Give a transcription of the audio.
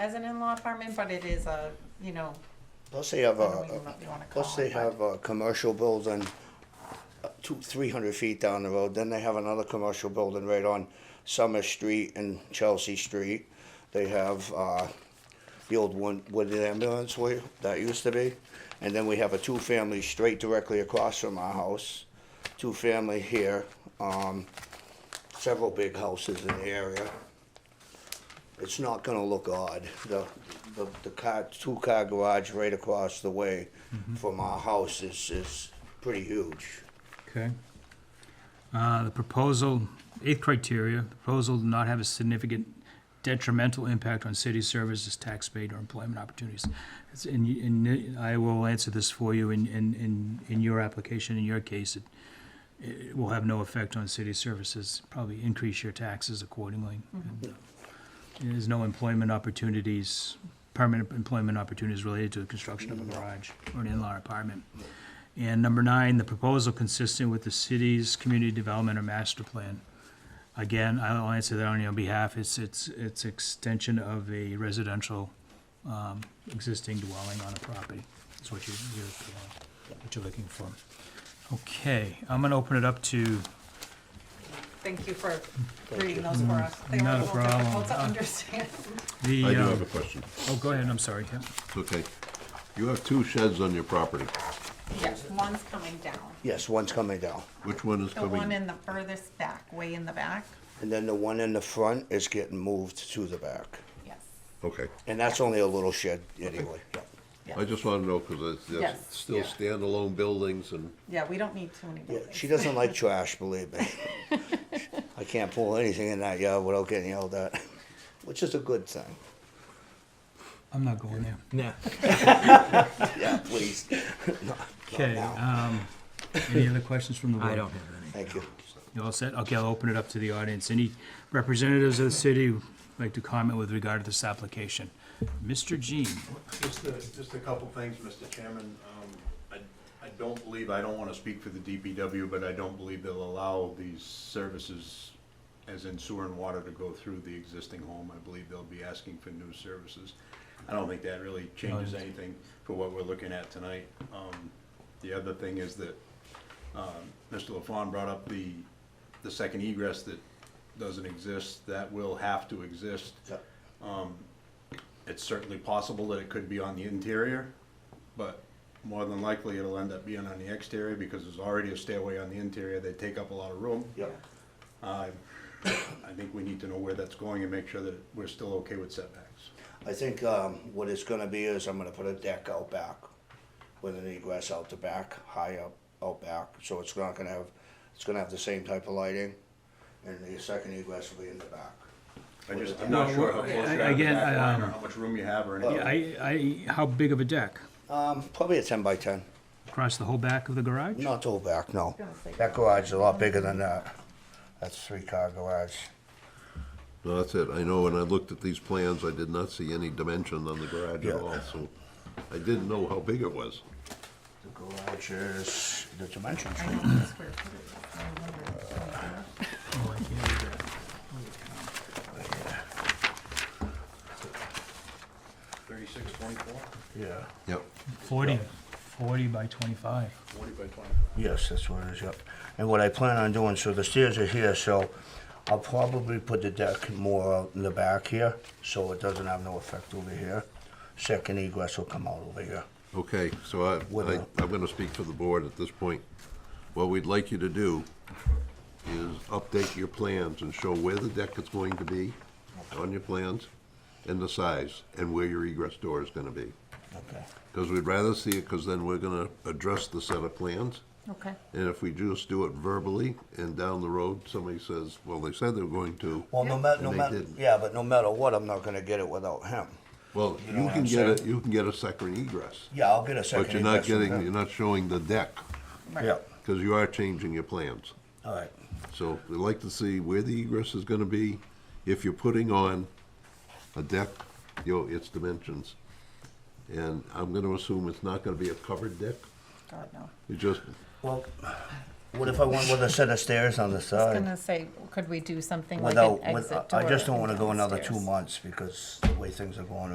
as an in-law apartment, but it is a, you know, Plus they have I don't even know a, what you wanna call plus they it, but- have a commercial building uh, two, three hundred feet down the road, then they have another commercial building right on Summer Street and Chelsea Street. They have, uh, the old one, wooded ambulance where that used to be, and then we have a two-family straight directly across from our house, two-family here, um, several big houses in the area. It's not gonna look odd. The, the, the car, two-car garage right across the way from our house is, is pretty huge. Okay. Uh, The proposal, eighth criteria, the proposal to not have a significant detrimental impact on city services, tax paid, or employment opportunities. It's- And, you- and I will answer this for you in, in, in, in your application, in your case, it, it will have no effect on city services, probably increase your taxes accordingly. And, uh, There's no employment opportunities, permanent employment opportunities related to the construction of a garage or an in-law apartment. And number nine, the proposal consistent with the city's community development or master plan. Again, I'll answer that on your behalf. It's, it's, it's extension of a residential, um, existing dwelling on a property. That's what you, you're, uh, what you're looking for. Okay, I'm gonna open it up to, thank you for reading those for us. They were Not a little difficult problem. Uh. to understand. the, I do have uh, a question. oh, go ahead, I'm sorry, Tim. It's okay. You have two sheds on your property. Yes, one's coming down. Yes, one's coming down. Which one is The one coming? in the furthest back, way in the back, And then the one in the front is getting moved to the back. yes. Okay. And that's only a little shed anyway. Yep. yes. I just want to know because it's, Yes, it's still yeah. standalone buildings and Yeah, we don't need too many Yeah, buildings. she doesn't like trash, believe me. I can't pull anything in that yard without getting yelled at, which is a good thing. I'm not going there. Yeah. Yeah, please. Okay, um, any other questions from the board? I don't have any. Thank you. You all set? Okay, I'll open it up to the audience. Any representatives of the city would like to comment with regard to this application? Mr. Jean, Just a, just a couple things, Mr. Chairman. Um, I, I don't believe, I don't wanna speak for the DPW, but I don't believe they'll allow these services, as in sewer and water, to go through the existing home. I believe they'll be asking for new services. I don't think that really changes anything for what we're looking at tonight. Um, the other thing is that, um, Mr. LaFawn brought up the, the second egress that doesn't exist, that will have to exist. Yep. It's certainly possible that it could be on the interior, but more than likely it'll end up being on the exterior because there's already a stairway on the interior. They take up a lot of room. Yep. Uh, I think we need to know where that's going and make sure that we're still okay with setbacks. I think um, what it's gonna be is I'm gonna put a deck out back with an egress out the back, high up, out back, so it's not gonna have, it's gonna have the same type of lighting, and the second egress will be in the back. I just, I'm not Well, sure well, how close you I- are to the again, back I, line or um, how much room you have or anything. I, I, how big of a deck? Um, probably a ten by ten, Across the whole back of the garage? not all back, no. Gonna say- That garage is a lot bigger than that. That's three car garage. no, that's it. I know when I looked at these plans, I did not see any dimension on the garage Yeah. at all, so I didn't know how big it was. The garage is, the dimensions. I don't know the square footage. I remember it was on there. Oh, I can't do that. Thirty-six, twenty-four, Yeah. Yep. Forty, forty by twenty-five. forty by twenty-four. Yes, that's what it is, yep. And what I plan on doing, so the stairs are here, so I'll probably put the deck more out in the back here, so it doesn't have no effect over here. Second egress will come out over here. Okay, so I, I, Without- I'm gonna speak for the board at this point. What we'd like you to do is update your plans and show where the deck is going to be on your plans and the size and where your egress door is gonna be. Okay. Because we'd rather see it, because then we're gonna address the set of plans. Okay. And if we just do it verbally and down the road, somebody says, well, they said they were going to. Well, no matter, And no they matter, didn't. yeah, but no matter what, I'm not gonna get it without him. Well, You know you what can I'm get a, saying? you can get a second egress, Yeah, I'll get a second but you're egress. not from getting, him. you're not showing the deck, Right. Yeah, because you are changing your plans. all right, So we'd like to see where the egress is gonna be, if you're putting on a deck, you know, its dimensions. And I'm gonna assume it's not gonna be a covered deck, God, no. it just, well, what if I went with a set of stairs on the I was gonna side? say, could we do something like an Without, with- exit door? I just don't wanna go another two downstairs? months because the way things are going